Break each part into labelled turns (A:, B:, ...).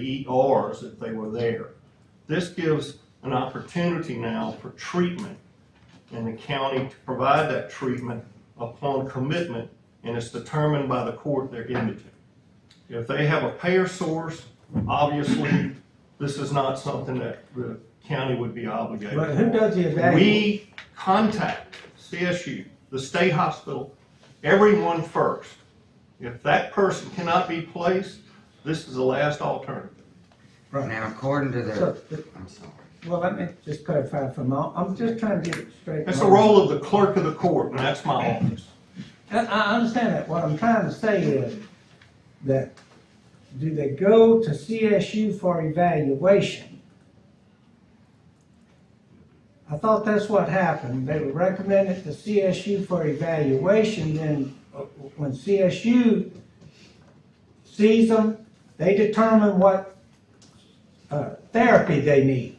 A: ERs E if they were there. This gives an opportunity now for treatment and the county to provide that treatment upon commitment, and it's determined by the court they're indigent. If they have a payer source, obviously, this is not something that the county would be obligated.
B: But who does the evaluation?
A: We contact CSU, the state hospital, everyone first. If that person cannot be placed, this is the last alternative.
B: Right.
C: Now, according to
B: So,
C: the,
B: th-
C: I'm sorry.
B: well, let me just clarify for a moment. I'm just trying to get it straight.
A: That's the role of the clerk of the court, and that's my office.
B: I, I understand that. What I'm trying to say is that do they go to CSU for evaluation? I thought that's what happened. They were recommended to CSU for evaluation, then uh, when CSU sees them, they determine what, uh, therapy they need.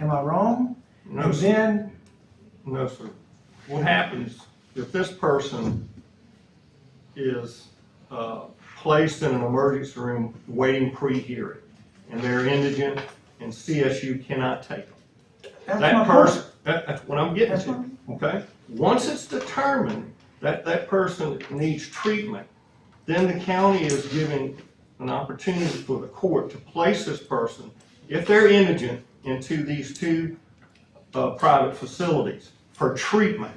B: Am I wrong?
A: No,
B: And
A: sir.
B: then
A: No, sir. What happens if this person is uh, placed in an emergency room waiting pre-hearing, and they're indigent, and CSU cannot take them?
B: That's my
A: That
B: point.
A: person, that, that's what I'm getting
B: That's
A: to, okay? Once it's determined that that person needs treatment, then the county is given an opportunity for the court to place this person, if they're indigent, into these two, uh, private facilities for treatment.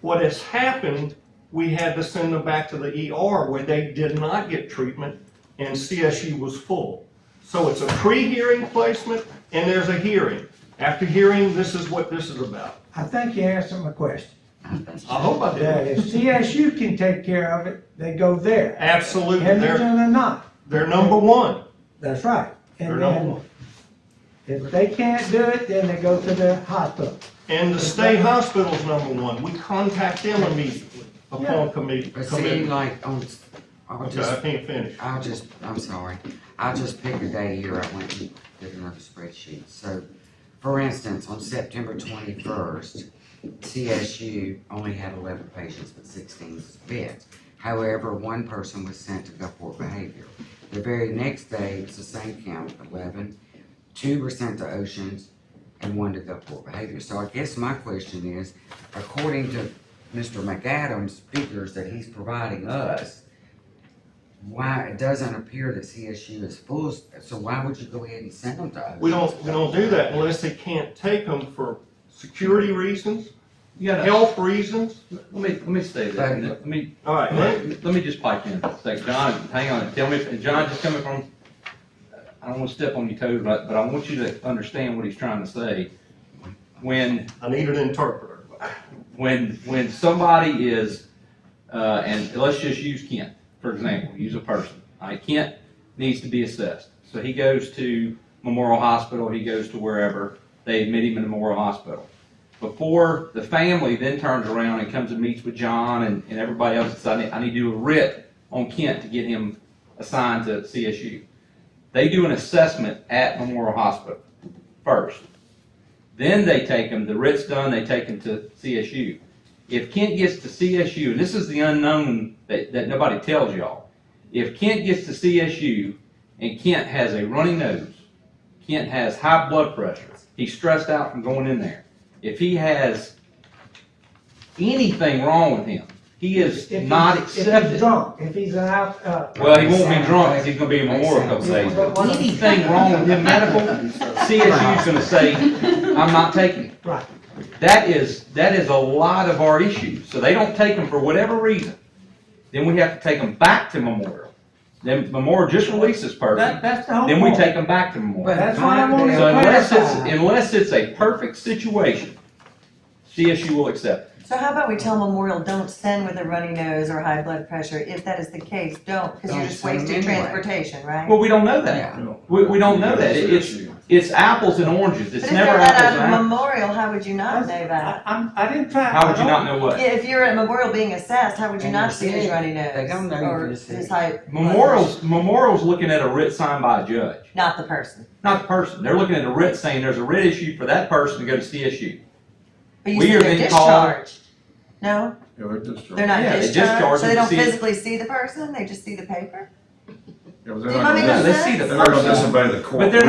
A: What has happened, we had to send them back to the ER where they did not get treatment and CSU was full. So it's a pre-hearing placement and there's a hearing. After hearing, this is what this is about.
B: I think you answered my question.
A: I hope I
B: That
A: did.
B: if CSU can take care of it, they go there.
A: Absolutely, they're,
B: Indigent or not,
A: they're number one.
B: that's right.
A: They're
B: And
A: number
B: then
A: one.
B: if they can't do it, then they go to the hospital.
A: And the state hospital's number one. We contact them immediately upon committee,
C: But see,
A: commitment.
C: like, on, I'll
A: Okay, I
C: just,
A: can't finish.
C: I'll just, I'm sorry. I'll just pick a day here. I went and did another spreadsheet. So, for instance, on September twenty-first, CSU only had eleven patients, but sixteen was beds. However, one person was sent to Gulfport Behavior. The very next day, it was the same count, eleven. Two were sent to Oceans and one to Gulfport Behavior. So I guess my question is, according to Mr. McAdams' figures that he's providing us, why, it doesn't appear that CSU is full, so why would you go ahead and send them to Oceans?
A: We don't, we don't do that unless they can't take them for security reasons,
D: You gotta,
A: health reasons.
D: let me, let me say that, and let me,
A: All right, let-
D: let me just pipe in, say, John, hang on, tell me, if- and John, just coming from, I don't wanna step on your toes, but, but I want you to understand what he's trying to say. When
A: I need an interpreter.
D: when when somebody is, uh, and let's just use Kent for example, use a person. All right, Kent needs to be assessed, so he goes to Memorial Hospital, he goes to wherever they admit him in Memorial Hospital. Before the family then turns around and comes and meets with John and, and everybody else, and says, I need, I need to do a writ on Kent to get him assigned to CSU. They do an assessment at Memorial Hospital first. Then they take him, the writ's done, they take him to CSU. If Kent gets to CSU, and this is the unknown that, that nobody tells y'all. If Kent gets to CSU and Kent has a runny nose, Kent has high blood pressure, he's stressed out from going in there. If he has anything wrong with him, he is
B: If he's-
D: not
B: If he's
D: accepted.
B: drunk, if he's an out, uh,
D: Well, he won't be drunk, 'cause he's gonna be in Memorial a couple days. But Anything wrong with him medical, CSU's gonna say, I'm not taking it.
B: right,
D: That is, that is a lot of our issues. So they don't take them for whatever reason. Then we have to take them back to Memorial. Then Memorial just releases this
B: that,
D: person,
B: that's the whole
D: then we
B: point.
D: take them back to Memorial.
B: That's why I'm
C: So
B: only
D: So unless it's,
B: clarifying.
D: unless it's a perfect situation, CSU will accept. it.
E: So how about we tell Memorial, don't send with a runny nose or high blood pressure, if that is the case, don't, because you're
C: Don't
E: just
C: send
E: wasting
C: anyway.
E: transportation, right?
D: Well, we don't know that.
C: Yeah,
D: We, we don't know that. It- It's, it's apples and oranges.
E: But
D: It's
E: if they're
D: never
E: not
D: apples and
E: at
D: apples.
E: Memorial, how would you not know
B: I,
E: that?
B: I'm, I didn't try.
D: How would
B: I
D: you
B: don't-
D: not know what?
E: Yeah, if you're at Memorial being assessed, how would you
C: And
E: not
C: you're
E: see his
C: sick.
E: runny nose?
C: They don't know
E: Or
C: you're sick.
E: his high. blood pressure?
D: Memorial's, Memorial's looking at a writ signed by a judge.
E: Not the person.
D: Not the person. They're looking at a writ saying there's a writ issue for that person to go to CSU.
E: But you
D: We
E: said
D: are
E: they're
D: then called-
E: discharged. No,
F: Yeah, they're discharged.
E: they're not
D: Yeah, they
E: discharged,
D: discharge
E: so they
D: them
E: don't
D: to see-
E: physically see the person, they just see the paper?
F: Yeah, but
E: Do
F: they're
E: you
F: not
E: want me
F: gonna
E: to
D: No,
F: dis-
D: they
E: send?
D: see the
F: they're not gonna
D: person.
F: disobey the court.
D: But they're